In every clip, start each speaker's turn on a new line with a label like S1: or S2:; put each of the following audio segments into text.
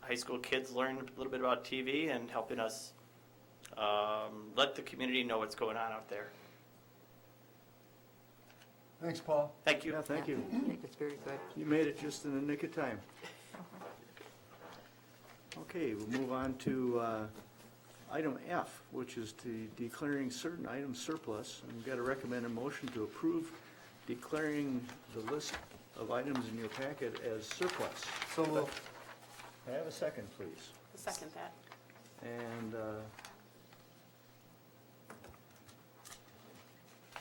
S1: high school kids learn a little bit about TV and helping us um, let the community know what's going on out there.
S2: Thanks, Paul.
S1: Thank you.
S3: Yeah, thank you.
S4: I think it's very good.
S3: You made it just in the nick of time. Okay, we'll move on to uh, item F, which is the declaring certain items surplus. And We've got to recommend a motion to approve declaring the list of items in your packet as surplus.
S2: So moved.
S3: May I have a second, please?
S5: Second that.
S3: And uh,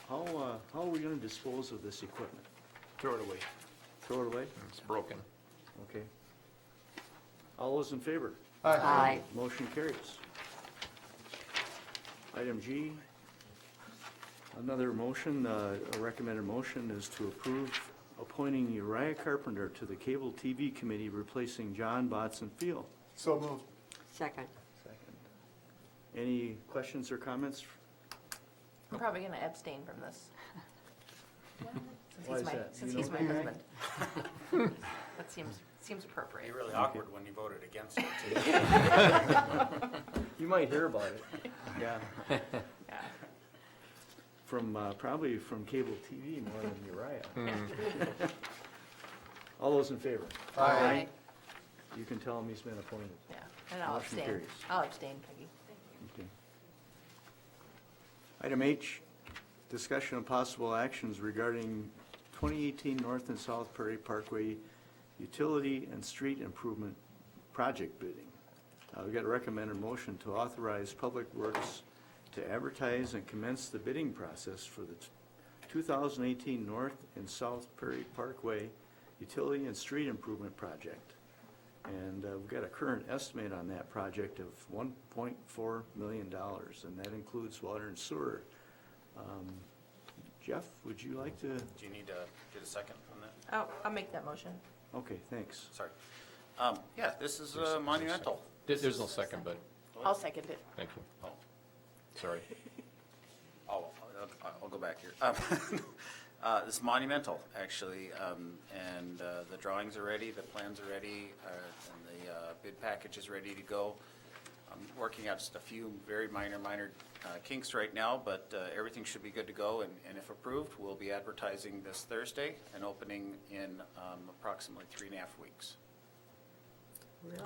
S3: how, uh, how are we going to dispose of this equipment?
S6: Throw it away.
S3: Throw it away?
S6: It's broken.
S3: Okay. All those in favor?
S4: Aye.
S3: Motion carries. Item G, another motion, uh, a recommended motion is to approve appointing Uriah Carpenter to the Cable TV Committee replacing John Botson Field.
S2: So moved.
S4: Second.
S3: Any questions or comments?
S7: I'm probably going to abstain from this. Since
S3: Why
S7: he's
S3: is
S7: my-
S3: that?
S7: Since
S3: You
S7: he's
S3: know?
S7: my husband. That seems, seems appropriate.
S8: really awkward when you voted against it, too.
S3: You might hear about it. Yeah. From, uh, probably from cable TV more than Uriah. All those in favor?
S7: Aye.
S3: You can tell him he's been appointed.
S7: Yeah, and I'll
S3: Motion
S7: abstain.
S3: carries.
S7: I'll abstain, Peggy.
S3: Okay. Item H, discussion of possible actions regarding 2018 North and South Prairie Parkway utility and street improvement project bidding. Uh, We've got a recommended motion to authorize Public Works to advertise and commence the bidding process for the t- 2018 North and South Prairie Parkway utility and street improvement project. And uh, we've got a current estimate on that project of $1.4 million, and that includes water and sewer. Um, Jeff, would you like to,
S8: Do you need to get a second on that?
S7: Oh, I'll make that motion.
S3: okay, thanks.
S8: Sorry. Um, Yeah, this is uh, monumental.
S6: There- There's no second, but,
S5: I'll second it.
S6: thank you. Oh, Sorry.
S8: Oh, I'll, I'll go back here. Um, uh, This is monumental, actually, um, and uh, the drawings are ready, the plans are ready, uh, and the uh, bid package is ready to go. I'm working out just a few very minor, minor uh, kinks right now, but uh, everything should be good to go, and and if approved, we'll be advertising this Thursday and opening in um, approximately three and a half weeks.
S7: Really?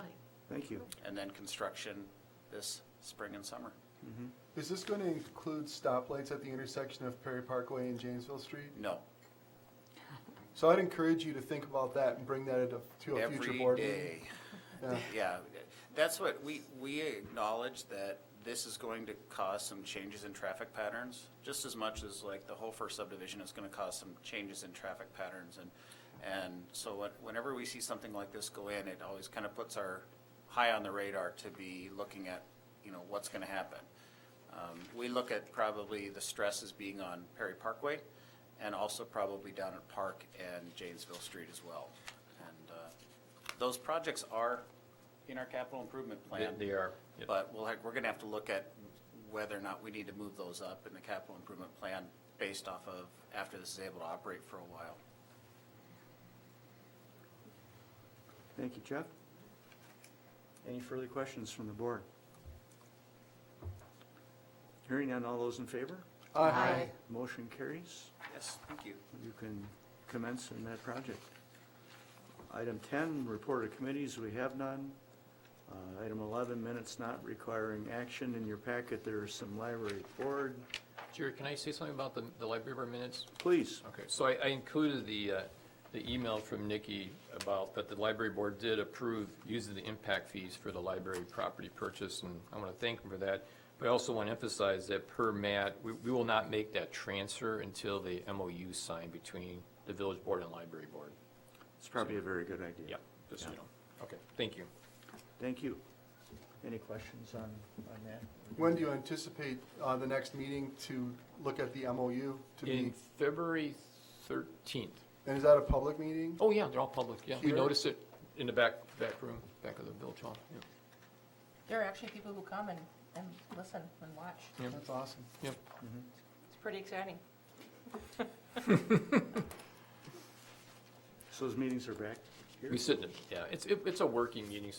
S3: Thank you.
S8: and then construction this spring and summer.
S2: Is this going to include stoplights at the intersection of Perry Parkway and Janesville Street?
S8: No,
S2: So I'd encourage you to think about that and bring that into- to a future
S8: every
S2: board meeting.
S8: day.
S2: Yeah.
S8: Yeah, that's what, we, we acknowledge that this is going to cause some changes in traffic patterns, just as much as like the whole first subdivision is gonna cause some changes in traffic patterns and, and so when- whenever we see something like this go in, it always kind of puts our high on the radar to be looking at, you know, what's gonna happen. Um, We look at probably the stresses being on Perry Parkway and also probably down at Park and Janesville Street as well. And uh, those projects are in our capital improvement plan.
S6: They- they are, yep.
S8: But we'll, have- we're going to have to look at whether or not we need to move those up in the capital improvement plan based off of after this is able to operate for a while.
S3: Thank you, Jeff. Any further questions from the board? Hearing none, all those in favor?
S2: Aye.
S3: Motion carries.
S8: Yes, thank you.
S3: You can commence in that project. Item 10, report of committees, we have none. Uh, Item 11, minutes not requiring action. In your packet, there is some library board.
S6: Jerry, can I say something about the, the library board minutes?
S3: Please,
S6: Okay, so I, I included the, uh, the email from Nikki about that the library board did approve using the impact fees for the library property purchase, and I want to thank them for that. But I also want to emphasize that per Matt, we, we will not make that transfer until the MOU signed between the village board and library board.
S3: it's probably a very good idea.
S6: Yep, just, so you know, okay, thank you.
S3: Thank you. Any questions on, on that?
S2: When do you anticipate uh, the next meeting to look at the MOU to
S6: In
S2: be?
S6: February thirteenth,
S2: And is that a public meeting?
S6: oh yeah, they're all public, yeah, we
S2: Here?
S6: noticed it in the back, back room, back of the village hall, yeah.
S7: There are actually people who come and, and listen and watch.
S2: That's awesome.
S6: Yep.
S7: It's pretty exciting.
S3: So those meetings are back here?
S6: We sit in, it. yeah, it's, it- it's a working meeting, so